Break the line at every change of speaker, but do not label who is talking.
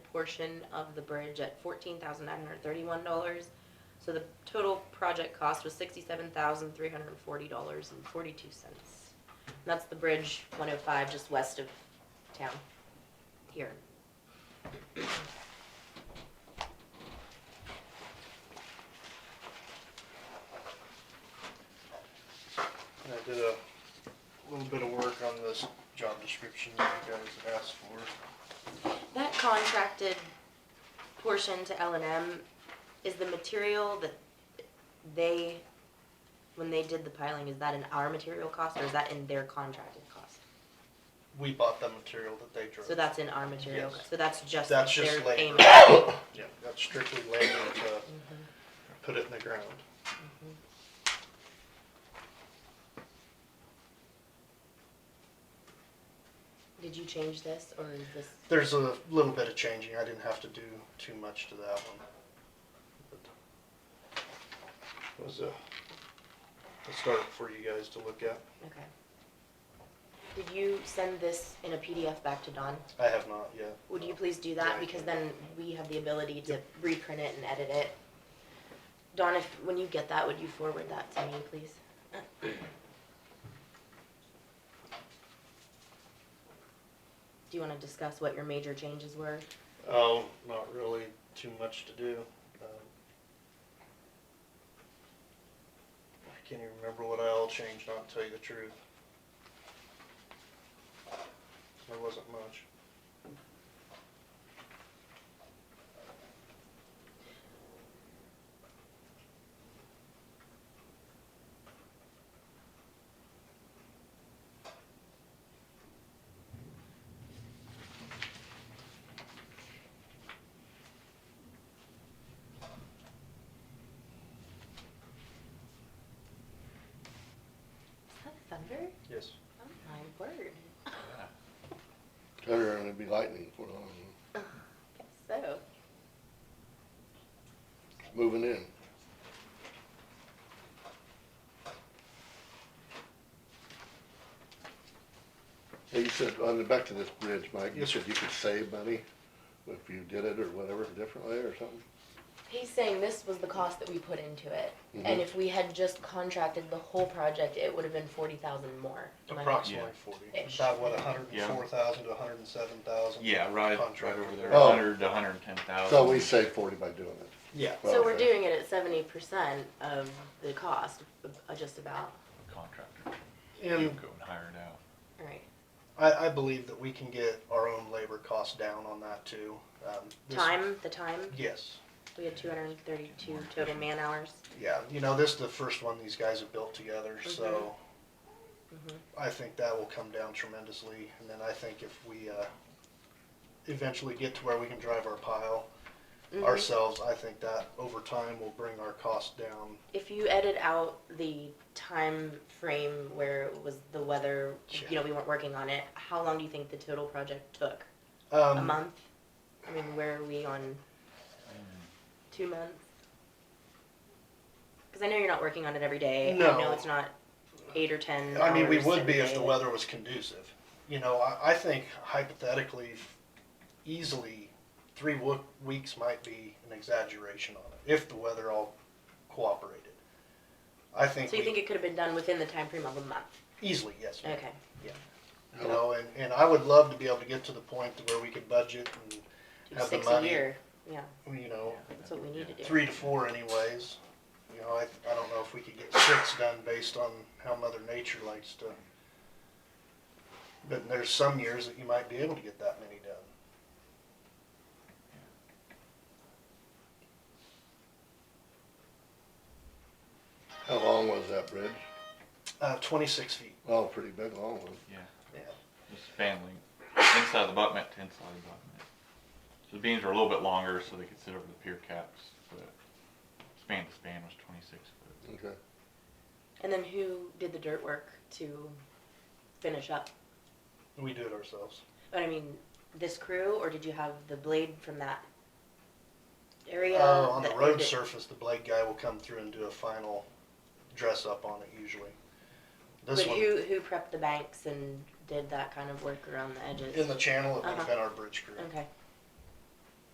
portion of the bridge at fourteen thousand nine hundred thirty-one dollars. So the total project cost was sixty-seven thousand three hundred and forty dollars and forty-two cents. That's the bridge one oh five, just west of town, here.
And I did a little bit of work on this job description that you guys asked for.
That contracted portion to L and M is the material that they, when they did the piling, is that in our material cost or is that in their contracted cost?
We bought the material that they drove.
So that's in our material,
Yes.
so that's just their
That's just
payment. Mm-hmm.
labor. Yeah, that's strictly labor to put it in the ground.
Did you change this or is this,
There's a little bit of changing. I didn't have to do too much to that one. But it Was a, I started for you guys to look at.
okay. Did you send this in a PDF back to Don?
I have not yet.
Would you please do
Yeah,
that,
I
because
can.
then we have the ability to reprint it and edit it. Dawn, if, when you get that, would you forward that to me, please? Do you wanna discuss what your major changes were?
Oh, not really too much to do. Um, I can't even remember what I all changed, not to tell you the truth. There wasn't much.
Is that thunder?
Yes.
Oh my word.
Turn around and it'd be lightning for long.
Guess so.
It's moving in. Hey, you said, on the, back to this bridge, Mike, you
Yes, sir.
said you could save money if you did it or whatever differently or something?
He's saying this was the cost that we put into it, and
Mhm.
if we had just contracted the whole project, it would have been forty thousand more. Am I not-
Approximately forty.
Ish.
About what, a hundred
Yeah.
and four thousand to a hundred and seven thousand?
Yeah, right, right
Contract.
over there,
Oh.
hundred to hundred and ten thousand.
So we saved forty by doing it.
Yeah.
So we're
Okay.
doing it at seventy percent of the cost, uh, just about,
Contractor, you
And
go and hire it out.
alright.
I, I believe that we can get our own labor costs down on that too. Um, this-
Time, the time,
Yes.
we had two hundred and thirty-two total man hours.
Yeah, you know, this is the first one these guys have built together,
Mm-hmm.
so
Mhm.
I think that will come down tremendously. And then I think if we uh, eventually get to where we can drive our pile
Mhm.
ourselves, I think that over time will bring our costs down.
If you edit out the time frame where it was the weather, you
Yeah.
know, we weren't working on it, how long do you think the total project took? A
Um,
month? I mean, where are we on two months? Because I know you're not working on it every day. I know
No.
it's not eight or ten.
I mean, we
hours
would
every
be if
day,
the
but-
weather was conducive. You know, I, I think hypothetically, easily, three wo- weeks might be an exaggeration on it if the weather all cooperated. I think,
So you
we-
think it could have been done within the time frame of a month?
easily, yes. ma'am.
Okay.
You know, and, and I would love to be able to get to the point to where we could budget
Do
Have the
six a
money.
year. Yeah,
and, you know,
that's what we need to do.
three to four anyways. You know, I, I don't know if we could get six done based on how Mother Nature likes to. But there's some years that you might be able to get that many done.
How long was that bridge?
Uh, twenty-six feet.
Oh, pretty big, long one.
It's span length, inside the abutment to inside the abutment. So the beams are a little bit longer, so they could sit over the pier caps, but span to span was twenty-six foot.
Okay.
And then who did the dirt work to finish up?
We do it ourselves.
But I mean, this crew, or did you have the blade from that area?
Uh, on the
that- or
road
did-
surface, the blade guy will come through and do a final dress up on it usually. This
But
one,
who, who prepped the banks and did that kind of work around the edges?
in the channel, it would
Uh-huh.
have been our bridge crew.
Okay,